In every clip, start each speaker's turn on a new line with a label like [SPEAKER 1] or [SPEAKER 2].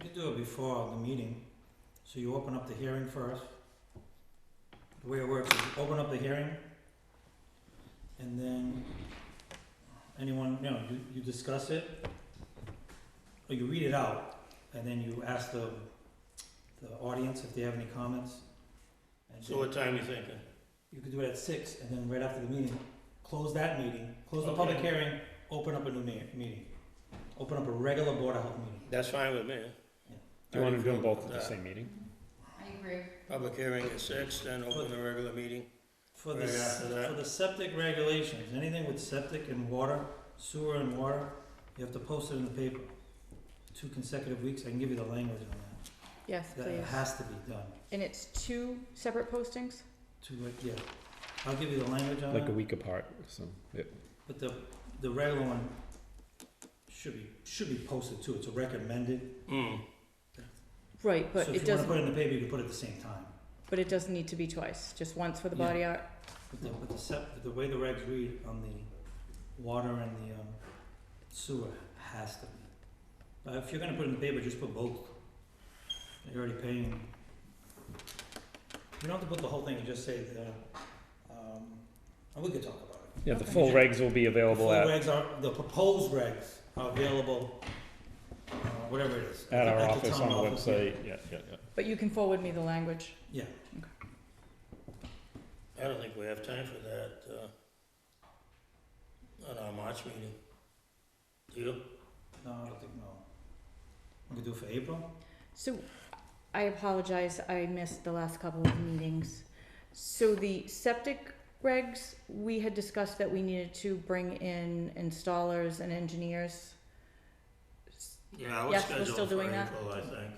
[SPEAKER 1] could do it before the meeting, so you open up the hearing first. The way it works is you open up the hearing, and then anyone, you know, you, you discuss it, or you read it out, and then you ask the, the audience if they have any comments. and
[SPEAKER 2] So
[SPEAKER 1] then-
[SPEAKER 2] what time you thinking?
[SPEAKER 1] you could do it at six, and then right after the meeting, close that meeting, close the public
[SPEAKER 2] Okay.
[SPEAKER 1] hearing, open up a new me- meeting. Open up a regular Board of Health meeting.
[SPEAKER 2] That's fine with me.
[SPEAKER 3] Do you want to do them both at
[SPEAKER 2] Uh,
[SPEAKER 3] the same meeting?
[SPEAKER 4] I agree.
[SPEAKER 2] Public hearing at six, then open the regular meeting.
[SPEAKER 1] For the,
[SPEAKER 2] Right
[SPEAKER 1] s-
[SPEAKER 2] after that.
[SPEAKER 1] for the septic regulations, anything with septic and water, sewer and water, you have to post it in the paper. Two consecutive weeks, I can give you the language on that.
[SPEAKER 4] Yes,
[SPEAKER 1] That it
[SPEAKER 4] please.
[SPEAKER 1] has to be done,
[SPEAKER 4] And it's two separate postings?
[SPEAKER 1] two, like, yeah. I'll give you the language on
[SPEAKER 3] Like a
[SPEAKER 1] that,
[SPEAKER 3] week apart, so, yeah.
[SPEAKER 1] but the, the regular one should be, should be posted too, it's recommended.
[SPEAKER 2] Hmm,
[SPEAKER 4] Right,
[SPEAKER 1] So
[SPEAKER 4] but it
[SPEAKER 1] if you wanna
[SPEAKER 4] doesn't,
[SPEAKER 1] put it in the paper, you can put it at the same time.
[SPEAKER 4] but it doesn't need to be twice, just once for the
[SPEAKER 1] Yeah.
[SPEAKER 4] body art.
[SPEAKER 1] But the, but the sep, the way the regs read on the water and the um, sewer has to be. But if you're gonna put it in the paper, just put both. You're already paying. You don't have to put the whole thing, you just say the, um, and we could talk about it.
[SPEAKER 3] Yeah, the
[SPEAKER 4] Okay.
[SPEAKER 3] full regs will be
[SPEAKER 1] The
[SPEAKER 3] available
[SPEAKER 1] full
[SPEAKER 3] at,
[SPEAKER 1] regs are, the proposed regs are available, uh, whatever it is.
[SPEAKER 3] at our
[SPEAKER 1] the
[SPEAKER 3] office
[SPEAKER 1] town
[SPEAKER 3] on the
[SPEAKER 1] yeah.
[SPEAKER 3] website, yeah, yeah, yeah.
[SPEAKER 4] But you can forward me the language.
[SPEAKER 2] I don't think we have time for that, uh, on our March meeting. Do you?
[SPEAKER 1] No, I don't think, no. We could do it for April,
[SPEAKER 4] So I apologize, I missed the last couple of meetings. So the septic regs, we had discussed that we needed to bring in installers and engineers.
[SPEAKER 2] Yeah, I was
[SPEAKER 4] Yes, we're
[SPEAKER 2] scheduled
[SPEAKER 4] still
[SPEAKER 2] for
[SPEAKER 4] doing that.
[SPEAKER 2] April, I think.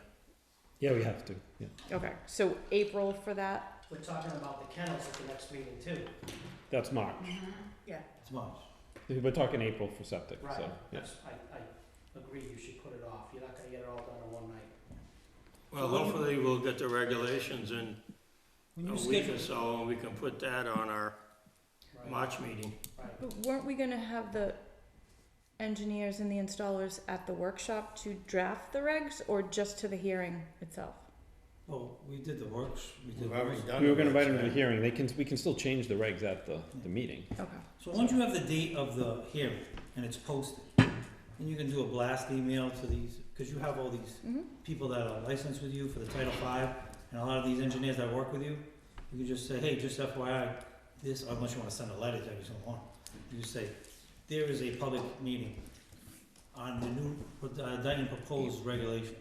[SPEAKER 3] Yeah, we have to, yeah.
[SPEAKER 4] Okay, so April for that?
[SPEAKER 5] We're talking about the kennels at the next meeting too.
[SPEAKER 3] That's March.
[SPEAKER 4] Mm-hmm.
[SPEAKER 1] it's March.
[SPEAKER 3] We're talking April for septic, so, yeah.
[SPEAKER 5] That's- I, I agree, you should put it off. You're not gonna get it all done in one night.
[SPEAKER 2] Well, hopefully we'll get the regulations in
[SPEAKER 1] When
[SPEAKER 2] a
[SPEAKER 1] you
[SPEAKER 2] week
[SPEAKER 1] schedule,
[SPEAKER 2] or so, and we can put that on our
[SPEAKER 5] right?
[SPEAKER 2] March meeting.
[SPEAKER 5] Right.
[SPEAKER 4] But weren't we gonna have the engineers and the installers at the workshop to draft the regs or just to the hearing itself?
[SPEAKER 1] well, Oh, we did the works, we did.
[SPEAKER 2] We've already done.
[SPEAKER 3] We were gonna
[SPEAKER 2] the
[SPEAKER 3] invite them to the
[SPEAKER 2] regs, right?
[SPEAKER 3] hearing, they can, we can still change the regs at the, the meeting.
[SPEAKER 4] Okay.
[SPEAKER 1] So once you have the date of the hearing and it's posted, then you can do a blast email to these, because you have all these
[SPEAKER 4] Mm-hmm.
[SPEAKER 1] people that are licensed with you for the Title V, and a lot of these engineers that work with you, you can just say, hey, just FYI, this, unless you wanna send a letter to every single one, you just say, there is a public meeting on the new, uh, Dayton proposed regulations.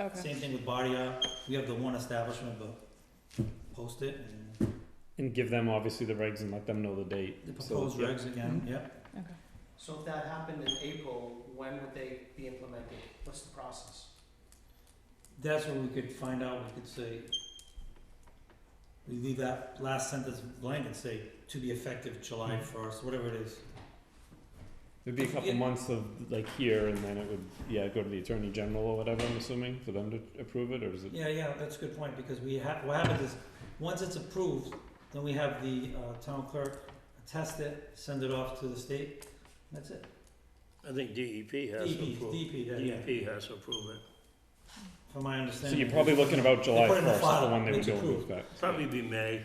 [SPEAKER 4] Okay.
[SPEAKER 1] Same thing with body art, we have the one establishment, but post it and
[SPEAKER 3] And give them obviously the regs and let them know the date.
[SPEAKER 1] the
[SPEAKER 3] so,
[SPEAKER 1] proposed
[SPEAKER 3] yeah.
[SPEAKER 1] regs again, yep.
[SPEAKER 4] Okay.
[SPEAKER 5] So if that happened in April, when would they be implemented? What's the process?
[SPEAKER 1] That's what we could find out, we could say, we leave that last sentence blank and say, to be effective July first, whatever it is.
[SPEAKER 3] It'd be a couple
[SPEAKER 1] Yeah.
[SPEAKER 3] months of like here and then it would, yeah, go to the attorney general or whatever, I'm assuming, for them to approve it, or is it?
[SPEAKER 1] Yeah, yeah, that's a good point, because we have, what happens is, once it's approved, then we have the, uh, town clerk attest it, send it off to the state, and that's it.
[SPEAKER 2] I think DEP has
[SPEAKER 5] E
[SPEAKER 2] to
[SPEAKER 1] DP,
[SPEAKER 2] approve.
[SPEAKER 1] DP, that, yeah,
[SPEAKER 2] DEP has to approve it.
[SPEAKER 1] from my
[SPEAKER 3] So
[SPEAKER 1] understanding.
[SPEAKER 3] you're probably looking about July
[SPEAKER 1] put it in the
[SPEAKER 3] first, the
[SPEAKER 1] file,
[SPEAKER 3] one they would
[SPEAKER 1] it's
[SPEAKER 3] go
[SPEAKER 1] approved.
[SPEAKER 3] with that.
[SPEAKER 2] Probably be May,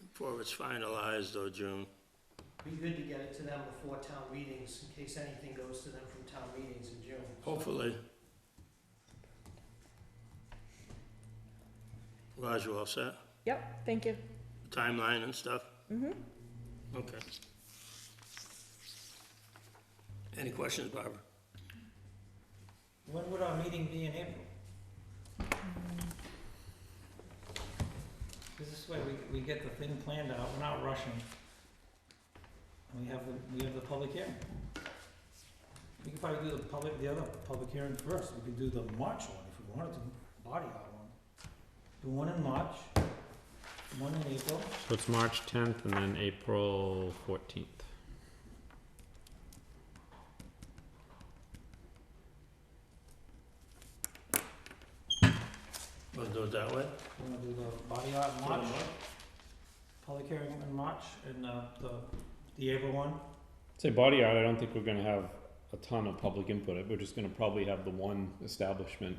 [SPEAKER 2] before it's finalized, or June.
[SPEAKER 5] Be good to get it to them before town meetings, in case anything goes to them from town meetings in June.
[SPEAKER 2] Hopefully. Raj, you all set?
[SPEAKER 4] Yep, thank you.
[SPEAKER 2] Timeline and stuff?
[SPEAKER 4] Mhm.
[SPEAKER 2] Okay. Any questions, Barbara?
[SPEAKER 1] When would our meeting be in April? Cause this way we, we get the thing planned out, we're not rushing. And we have the, we have the public hearing. We could probably do the public, the other public hearing first, we could do the March one if we wanted to, body art one. Do one in March, one in April,
[SPEAKER 3] So it's March tenth and then April fourteenth.
[SPEAKER 2] Want to do it that way?
[SPEAKER 1] we're gonna do the body art in March, public hearing in March, and uh the, the April one.
[SPEAKER 3] Say body art, I don't think we're gonna have a ton of public input. We're just gonna probably have the one establishment